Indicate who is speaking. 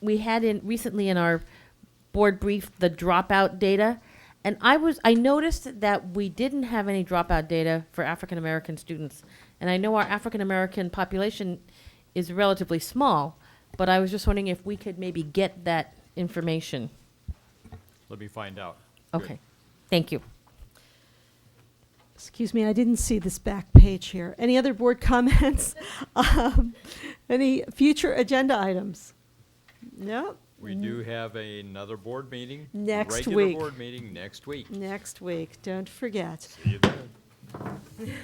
Speaker 1: we had in recently in our board brief the dropout data, and I was I noticed that we didn't have any dropout data for African American students, and I know our African American population is relatively small, but I was just wondering if we could maybe get that information.
Speaker 2: Let me find out. Good.
Speaker 1: Okay, thank you.
Speaker 3: Excuse me, I didn't see this back page here. Any other board comments? Um, Any future agenda items? No?
Speaker 2: We do have another board meeting.
Speaker 3: Next
Speaker 2: regular
Speaker 3: week.
Speaker 2: board meeting next week.
Speaker 3: Next week, don't forget.
Speaker 2: See you then.